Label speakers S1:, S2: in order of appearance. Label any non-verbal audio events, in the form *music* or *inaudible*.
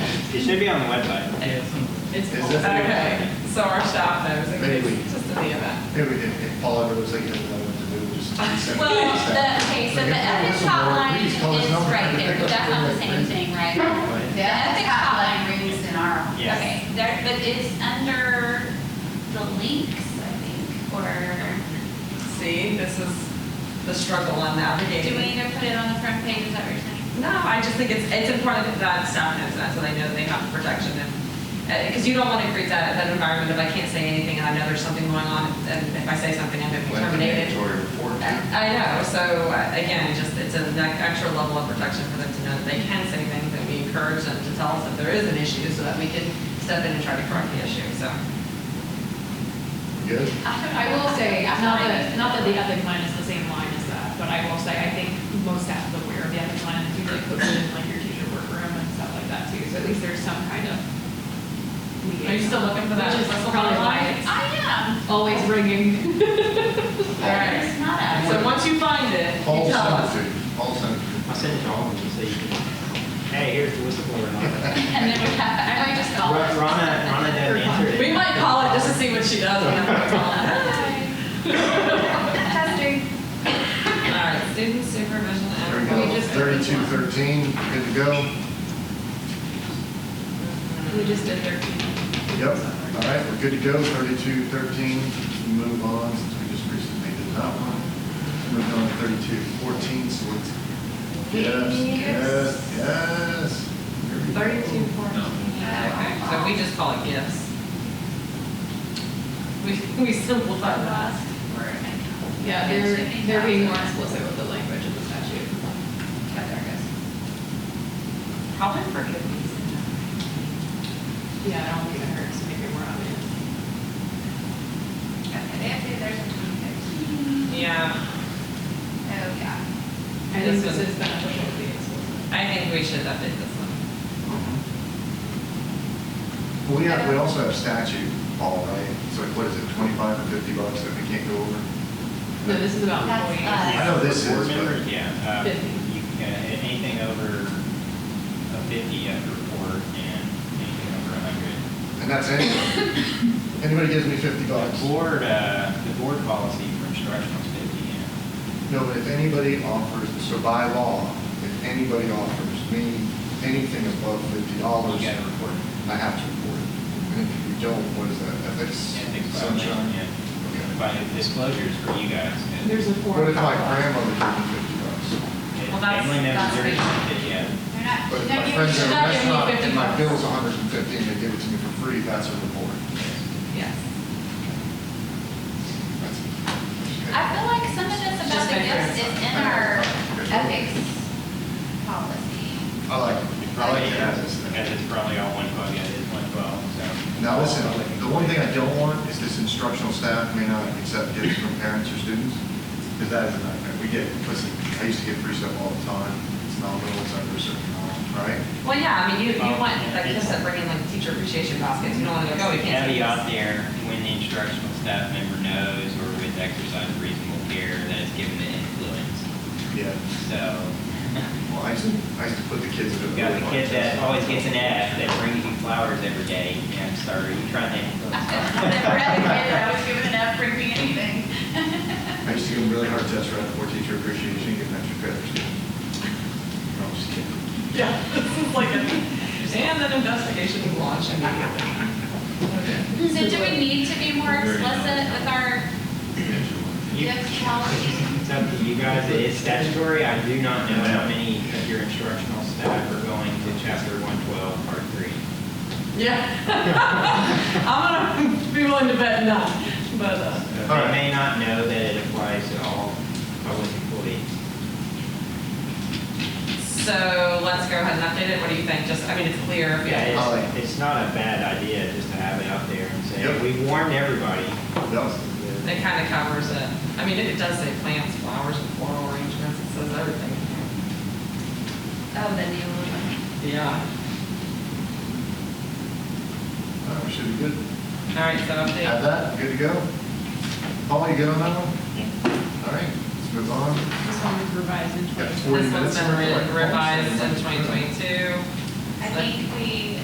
S1: It should be on the website.
S2: It's,
S3: Is it?
S2: okay, so our staff knows, it
S3: Maybe we-
S2: it's just in the event.
S3: Maybe if if Paul ever was like, he doesn't know what to do,
S2: *laughs*
S3: just. send it to
S4: Well,
S3: us.
S4: the, okay, so the ethics hotline is right there, but that's not the same thing, right?
S3: Right.
S4: The ethics hotline,
S5: rings in our office.
S1: Yes.
S4: okay, there, but it's under the links, I think, or
S2: See, this is the struggle on navigating.
S4: do we need to put it on the front page, is that what you're saying?
S2: No, I just think it's, it's important that staff knows that, so they know they have protection and, because you don't want to create that, that environment of I can't say anything and I know there's something going on and if I say something, I'm going to be
S3: Well, that's a
S2: terminated.
S3: mandatory report.
S2: I know, so uh, again, just, it's an extra level of protection for them to know that they can say things and we encourage them to tell us if there is an issue so that we can step in and try to correct the issue, so.
S3: Good.
S6: I will say, not that, not that the ethic line is the same line as that, but I will say, I think most staff is aware of the ethic line, and usually puts it in like your teacher workroom and stuff like that too, so at least there's some kind of.
S2: Are you still looking for that
S6: Which is
S2: accessible
S6: probably
S2: line?
S6: why it's
S4: I
S6: *laughs* always ringing.
S4: am, but it's not us. *laughs*
S2: So once you find it, you
S3: Paul
S2: tell us.
S3: sent it, Paul sent it.
S1: I'll send it to all of you so you can, hey, here's the whistleblower and all
S4: *laughs*
S1: that.
S4: And then we have, I might just
S1: Ro-
S6: Oh.
S4: call it.
S1: Ronna, Ronna doesn't answer it.
S2: We might call her just to see what she does. when I'm calling. *laughs*
S5: Testing.
S4: *laughs*
S2: All right, student supervision
S3: There we
S2: and.
S3: go, thirty-two thirteen, good to go.
S6: We just did thirteen.
S3: Yep, all right, we're good to go, thirty-two thirteen, move on, since we just recently did that one. Move on to thirty-two fourteen, so let's. Yes, yes, yes. Here we go.
S2: Thirty-two fourteen. Okay, so we just call it gifts. We, we simplified that.
S6: Yeah, they're, they're being more explicit with the language of the statute. Yeah, there it
S2: Probably forgiveness.
S6: goes. Yeah, I don't think it hurts to make it more obvious.
S5: Okay, they have to, there's a twenty-six.
S2: Yeah,
S5: Oh, yeah.
S6: I think this is beneficial to be explicit.
S2: I think we should update this one.
S3: Well, we have, we also have statute, Paul, right? So like, what is it, twenty-five or fifty bucks that we can't go over?
S6: No, this is about
S5: That's us.
S6: employees.
S3: I know this
S1: Board
S3: is, but-
S1: members, yeah. um,
S6: Fifty.
S1: You can, anything over a fifty, you have to report, and anything over a hundred.
S3: And that's anybody. Anybody gives me fifty bucks.
S1: The board, uh, the board policy for instructional is fifty, yeah.
S3: No, but if anybody offers, so by law, if anybody offers me anything above fifty dollars,
S1: You
S3: I
S1: gotta report.
S3: have to report it. And if you don't, what is that, ethics?
S1: Ethics violation,
S3: Sunshine?
S1: yeah.
S3: Okay.
S1: By disclosures for you guys. and
S6: There's a form.
S3: What if my
S6: called-
S3: grandmother gave me fifty bucks?
S1: and
S2: Well, that's-
S1: Family members,
S5: that's
S1: there's,
S5: They're
S1: yeah.
S5: not, she's
S3: But
S5: not
S3: if my
S5: giving,
S3: friends
S5: she's
S3: at a
S5: not giving you
S3: restaurant
S5: fifty
S3: and
S5: bucks.
S3: my bill's a hundred and fifty and they give it to me for free, that's a report.
S2: Yes.
S3: That's-
S4: I feel like some of this about
S2: Just
S4: the
S2: my
S4: gifts
S2: friends.
S4: is in our ethics policy. *laughs*
S3: I like it. I like
S1: Probably,
S3: it.
S1: yeah, because it's probably all one twelve, yeah, it's one twelve, so.
S3: Now, listen, the one thing I don't want is this instructional staff may not accept gifts from parents or students, because that is a nightmare. We get, listen, I used to get free stuff all the time, it's not little, it's under a certain amount, right?
S2: Well, yeah, I mean, you, you want, like,
S1: It's-
S2: just to bring in like teacher appreciation baskets, you don't want to go, "Oh,
S1: There's
S2: we
S1: a
S2: can't. take
S1: caveat
S2: this."
S1: there, when the instructional staff member knows or with exercise of reasonable care that it's given the influence.
S3: Yeah.
S1: So,
S3: Well, I used to, I used to put the kids in a.
S1: you've got the kid
S3: really hard
S1: that
S3: test.
S1: always gets an F that brings you flowers every day, and I'm sorry, you trying to
S4: I
S1: influence.
S4: feel like I've read it, I was given enough for me anything.
S3: I used to give them really hard tests right before teacher appreciation, give them extra credit. for students. No, I'm just kidding.
S2: Yeah, it's like, a- and an investigation is launched immediately.
S4: So do we need to be more explicit with our
S1: You-
S4: gift policy?
S1: It's up to you guys, it is statutory, I do not know how many of your instructional staff are going to chapter one twelve, part three.
S2: Yeah. *laughs* I'm gonna be willing to bet none, but, uh,
S1: They
S3: All right.
S1: may not know that it applies to all public employees.
S2: so let's go ahead and update it. What do you think? Just, I mean, it's clear.
S1: Yeah,
S3: I'll-
S1: it's, it's not a bad idea just to have it out there and
S3: Yep.
S1: say, we warned everybody.
S3: That was-
S2: It kind of covers it. I mean, it does say plants, flowers, and floral arrangements. It says everything.
S4: Oh, the new one.
S2: Yeah.
S3: all right, we should be good.
S2: All right, so
S3: Have
S2: update.
S3: that, good to go. Paul, you good on that one? All right, let's move on.
S6: This one was revised in
S3: Got
S6: twenty.
S3: forty
S2: This one's been
S3: minutes. left.
S2: re- revised in 2022.
S5: I think we